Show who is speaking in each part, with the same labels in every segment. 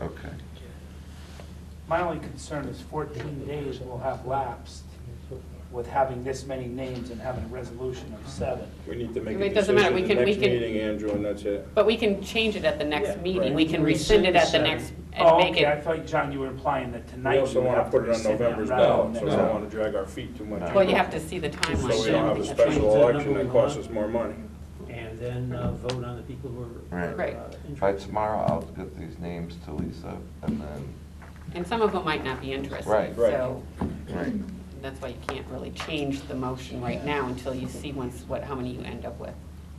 Speaker 1: Okay.
Speaker 2: My only concern is 14 days will have lapsed with having this many names and having a resolution of seven.
Speaker 3: We need to make a
Speaker 4: It doesn't
Speaker 3: decision
Speaker 4: matter. We
Speaker 3: at the
Speaker 4: can- we
Speaker 3: next
Speaker 4: can-
Speaker 3: meeting, Andrew, and that's it.
Speaker 4: But we can change it at the next
Speaker 2: Yeah,
Speaker 4: meeting.
Speaker 3: right.
Speaker 4: We can rescind it at the
Speaker 5: Rescind the
Speaker 4: next, and
Speaker 2: Oh,
Speaker 4: make
Speaker 2: okay, I
Speaker 4: it,
Speaker 2: thought, John, you were implying that
Speaker 3: We
Speaker 2: tonight
Speaker 3: also
Speaker 2: you would
Speaker 3: want
Speaker 2: have
Speaker 3: to put it on
Speaker 2: rescind
Speaker 3: November's
Speaker 2: rather
Speaker 3: ballot,
Speaker 2: than
Speaker 3: so I
Speaker 2: next.
Speaker 3: don't want to drag our feet too much.
Speaker 1: No.
Speaker 4: well, you have to see the
Speaker 3: So
Speaker 4: timeline.
Speaker 3: we don't have a
Speaker 4: I think that's
Speaker 3: special
Speaker 4: right.
Speaker 3: election that costs us more money.
Speaker 5: And then uh, vote on the people who are.
Speaker 1: Right.
Speaker 4: Right.
Speaker 5: uh,
Speaker 1: By
Speaker 5: interested.
Speaker 1: tomorrow, I'll get these names to Lisa and then,
Speaker 4: And some of them might not be interested.
Speaker 1: Right.
Speaker 3: Right.
Speaker 4: So
Speaker 1: right,
Speaker 4: that's why you can't really change the motion right now until you see once what, how many you end up with.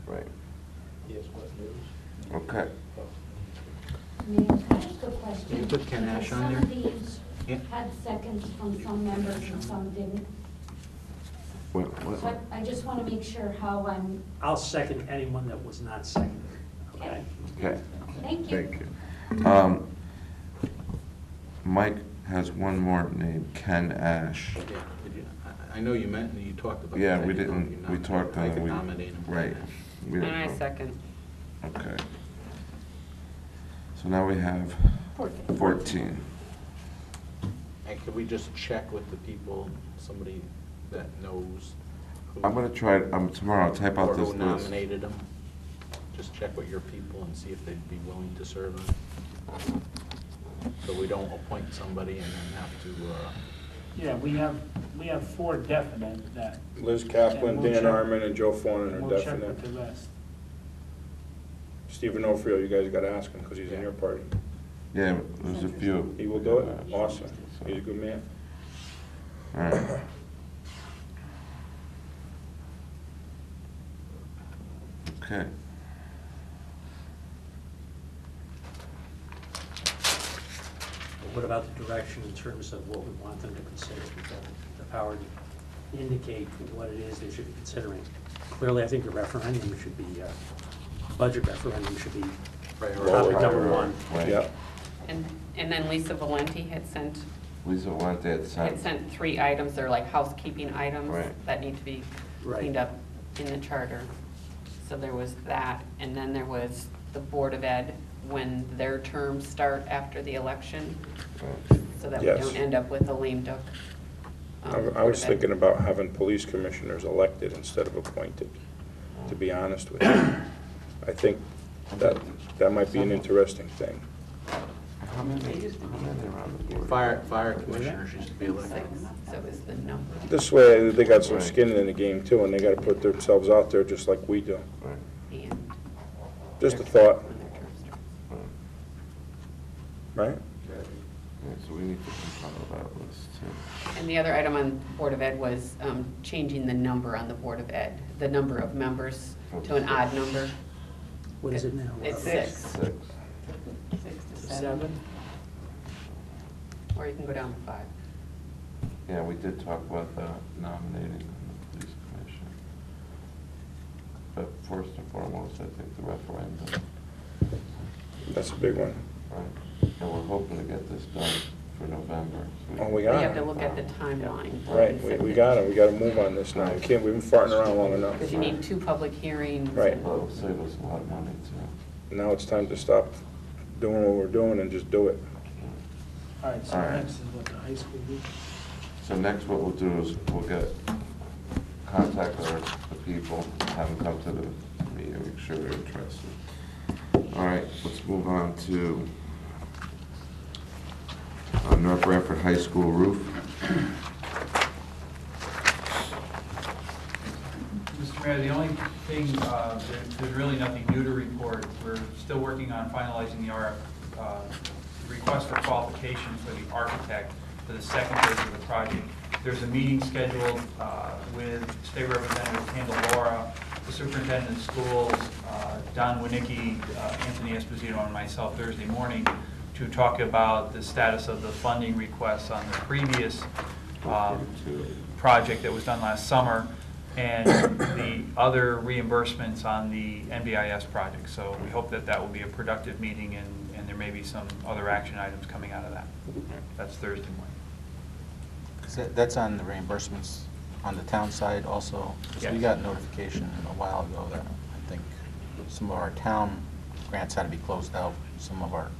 Speaker 1: right. Okay.
Speaker 6: May I ask a question?
Speaker 7: You put Ken Ash on there?
Speaker 6: Some of these
Speaker 7: Yeah.
Speaker 6: had seconds from some members and some didn't.
Speaker 1: Wait,
Speaker 6: So
Speaker 1: what?
Speaker 6: I- I just want to make sure how I'm,
Speaker 5: I'll second anyone that was not seconded, okay?
Speaker 1: Okay,
Speaker 6: thank you.
Speaker 1: thank you. Um, Mike has one more name, Ken Ash.
Speaker 7: Yeah, did you- I- I know you meant, you talked about.
Speaker 1: Yeah,
Speaker 7: that,
Speaker 1: we
Speaker 7: you know, you
Speaker 1: didn't, we
Speaker 7: nom-
Speaker 1: talked
Speaker 7: I
Speaker 1: on
Speaker 7: could
Speaker 1: we
Speaker 7: nominate him.
Speaker 1: Right. We
Speaker 4: And
Speaker 1: didn't
Speaker 4: I
Speaker 1: vote.
Speaker 4: second.
Speaker 1: Okay. So now we have fourteen.
Speaker 7: And could we just check with the people, somebody that knows? who-
Speaker 1: I'm gonna try, um, tomorrow, I'll type out
Speaker 7: Or
Speaker 1: this
Speaker 7: who
Speaker 1: list.
Speaker 7: nominated them? Just check with your people and see if they'd be willing to serve on it. So we don't appoint somebody and then have to, uh,
Speaker 2: Yeah, we have, we have four definite that,
Speaker 3: Liz Kaplan,
Speaker 2: And we'll
Speaker 3: Dan
Speaker 2: check-
Speaker 3: Arman, and Joe Fornin are
Speaker 2: we'll check with the
Speaker 3: definite.
Speaker 2: rest.
Speaker 3: Stephen Ophryo, you guys got to ask him because he's in your party.
Speaker 1: Yeah, there's a few.
Speaker 3: He will do it? Awesome. He's a good man.
Speaker 1: All right. Okay.
Speaker 5: But What about the direction in terms of what we want them to consider? We've got The power to indicate what it is they should be considering. Clearly, I think the referendum should be, uh, budget referendum should be
Speaker 7: prioritize.
Speaker 5: topic number one.
Speaker 1: Right.
Speaker 3: Yep.
Speaker 4: And, and then Lisa Valenti had sent,
Speaker 1: Lisa went at
Speaker 4: had
Speaker 1: seven.
Speaker 4: sent three items, they're like housekeeping items
Speaker 1: Right.
Speaker 4: that need to be
Speaker 5: Right.
Speaker 4: cleaned up in the charter. So there was that, and then there was the Board of Ed, when their terms start after the election, so that we
Speaker 3: Yes.
Speaker 4: don't end up with a lame duck. um,
Speaker 3: I I
Speaker 4: Board
Speaker 3: was
Speaker 4: of Ed.
Speaker 3: thinking about having police commissioners elected instead of appointed, to be honest with you. I think that, that might be an interesting thing.
Speaker 1: How many, how many are on the board?
Speaker 7: Fire, fire commissioners used to be elected.
Speaker 4: Six, so is the number.
Speaker 3: This way, they got some skin in the game too, and they got to put themselves out there just like we do.
Speaker 1: Right,
Speaker 4: and
Speaker 3: Just a thought,
Speaker 4: when their terms start.
Speaker 1: right.
Speaker 3: right?
Speaker 1: Yeah, so we need to compile that list too.
Speaker 4: And the other item on Board of Ed was um, changing the number on the Board of Ed, the number of members to an odd number.
Speaker 5: What is it now? Uh,
Speaker 4: It's six.
Speaker 1: Six.
Speaker 4: Six to seven,
Speaker 5: Seven?
Speaker 4: or you can go down to five.
Speaker 1: Yeah, we did talk about the nominating on the police commission. But first and foremost, I think the referendum,
Speaker 3: That's a big one.
Speaker 1: right? And we're hoping to get this done for November. so
Speaker 3: Oh, we
Speaker 4: But
Speaker 3: got
Speaker 4: you
Speaker 3: it.
Speaker 4: have to look at the timeline.
Speaker 3: Right, we, we got it, we got to move on this now. We can't, we've been farting around long enough.
Speaker 4: Because you need two public hearings.
Speaker 3: Right.
Speaker 4: and-
Speaker 1: Well, it'll save us a lot of money too.
Speaker 3: Now it's time to stop doing what we're doing and just do it.
Speaker 2: All right, so
Speaker 1: All right.
Speaker 2: next is what, the high school week?
Speaker 1: So next what we'll do is we'll get, contact our, the people, have them come to the meeting, make sure they're interested. All right, let's move on to uh, North Bradford High School roof.
Speaker 8: Mr. Mayor, the only thing, uh, there- there's really nothing new to report. We're still working on finalizing the RF, uh, request for qualification for the architect for the second phase of the project. There's a meeting scheduled uh, with State Representative Kendall Laura, the Superintendent of Schools, uh, Don Winnicki, uh, Anthony Esposito, and myself Thursday morning to talk about the status of the funding requests on the previous um, project that was done last summer, and the other reimbursements on the NBIS project. So we hope that that will be a productive meeting, and, and there may be some other action items coming out of that. That's Thursday morning.
Speaker 9: Because that- that's on the reimbursements on the town side also. 'Cause We
Speaker 8: Yes.
Speaker 9: got notification a while ago that I think some of our town grants had to be closed out, some of our